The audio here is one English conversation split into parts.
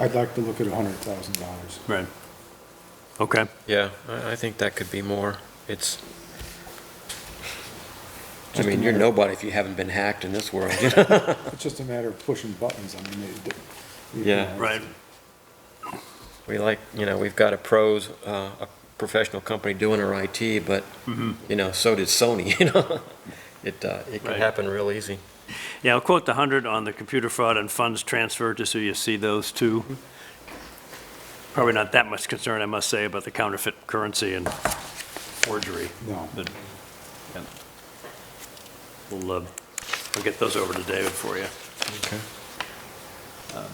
I'd like to look at hundred thousand dollars. Right. Okay. Yeah, I, I think that could be more. It's, I Just a mean, you're matter- nobody if you haven't been hacked in this world, you know? It's just a matter of pushing buttons, I mean, it. you Yeah. know, Right. We like, you know, we've got a pros, uh, a professional company doing our IT, but, Mm-hmm. you know, so did Sony, you know? It, uh, it can Right. happen real easy. Yeah, I'll quote the 100 on the computer fraud and funds transfer, just so you see those two. Probably not that much concern, I must say, about the counterfeit currency and forgery. No. But, yeah. We'll, uh, we'll get those over to David for you. Okay.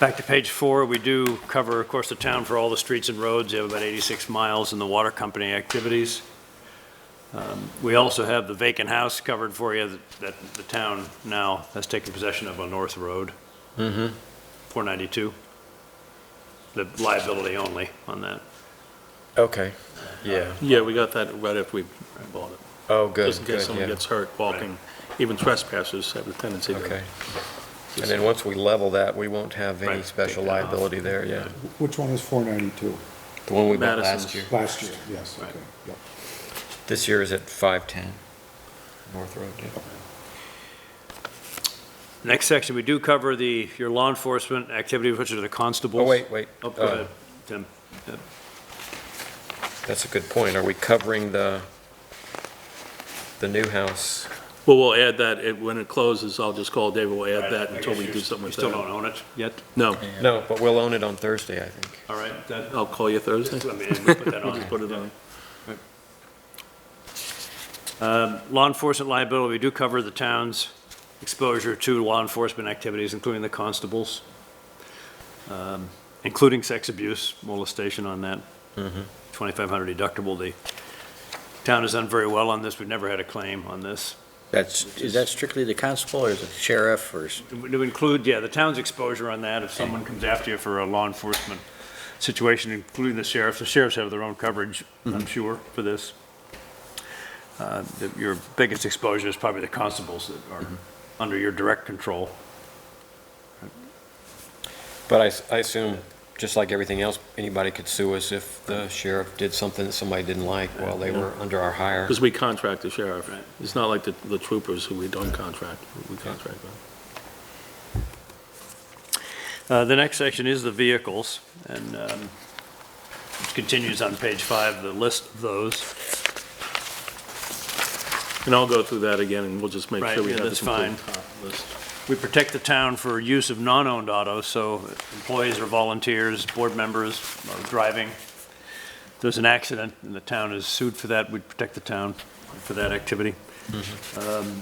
Back to page four, we do cover, of course, the town for all the streets and roads. You have about 86 miles in the water company activities. Um, We also have the vacant house covered for you that- that the town now has taken possession of on North Road. Mm-hmm. 492. The liability only on that. Okay, yeah. Yeah, we got that right after we bought it. Oh, good, Just in case good, someone yeah. gets hurt walking, even trespassers have a tendency to. Okay. And then once we level that, we won't have any Right, special take that off. liability there, yeah. Which one is four ninety-two? The one we bought Madison's. last year. Last year, yes, Right. okay, yep. This year is at 510 North Road, yeah. Next section, we do cover the, your law enforcement activities, which are the constables. Oh, wait, wait. Oh, go uh, ahead, Tim. That's a good point. Are we covering the, the new house? Well, we'll add that, it- when it closes, I'll just call David, we'll add that I until guess we you- do something with You still don't own that. it yet? No, No, but we'll own it on Thursday, I think. All right, that, I'll call you Thursday. I mean, we put that We'll on. just put it on. Um, Law enforcement liability, we do cover the town's exposure to law enforcement activities, including the constables, um, including sex abuse, molestation on that, Mm-hmm. 2,500 deductible. The town has done very well on this, we've never had a claim on this. That's, is that strictly the constable or is it sheriff or? s- To include, yeah, the town's exposure on that, if someone comes after you for a law enforcement situation, including the sheriff, the sheriffs have their own coverage, Mm-hmm. I'm sure, for this. Uh, the- Your biggest exposure is probably the constables that are Mm-hmm. under your direct control. But I s- I, assume, just like everything else, anybody could sue us if the sheriff did something that somebody didn't like while they were under our hire. Because we contract the sheriff. It's not like the the troopers who we don't contract, we contract them. Uh, The next section is the vehicles, and um, it continues on page five, the list of those. And I'll go through that again, and we'll just make Right, sure we yeah, have the that's complete fine. top list. We protect the town for use of non-owned autos, so employees or volunteers, board members are driving. If there's an accident and the town is sued for that, we'd protect the town for that activity. Um,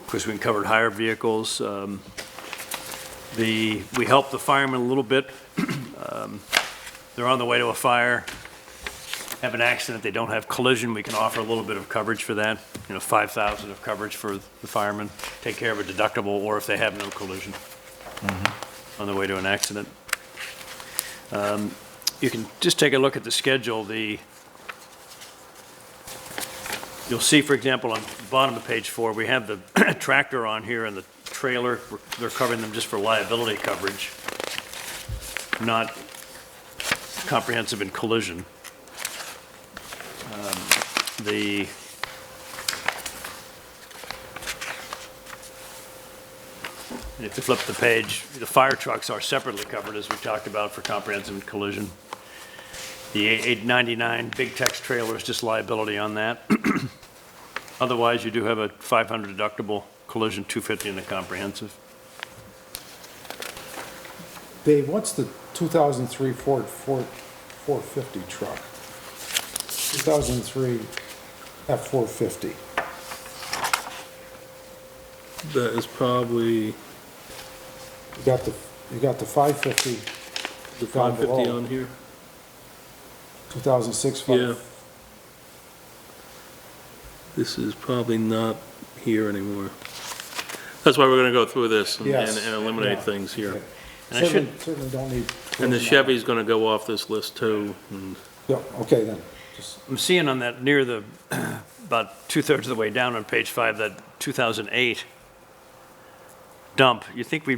Of course, we covered higher vehicles. um, The, we help the firemen a little bit. Um, They're on the way to a fire, have an accident, they don't have collision, we can offer a little bit of coverage for that, you know, 5,000 of coverage for the firemen, take care of a deductible, or if they have no collision on the way to an accident. Um, You can just take a look at the schedule, the, you'll see, for example, on the bottom of page four, we have the tractor on here and the trailer, We're- they're covering them just for liability coverage, not comprehensive in collision the if you flip the page, the fire trucks are separately covered, as we talked about, for comprehensive collision. The 899 big tex trailer is just liability on that. Otherwise, you do have a 500 deductible collision, 250 in the comprehensive. Dave, what's the two thousand three Ford, Ford, four fifty truck? Two thousand three F four fifty. That is probably You got the, you got the five fifty, the Down 550 below. on here. two thousand six Yeah. Ford. This is probably not here anymore. That's why we're gonna go through this and- Yes. and and eliminate Yeah. things here. And I Certainly, certainly don't need. And the Chevy's gonna go off this list too. Hmm. and- Yeah, okay then, just, I'm seeing on that, near the, about two-thirds of the way down on page five, that 2008 dump. You think we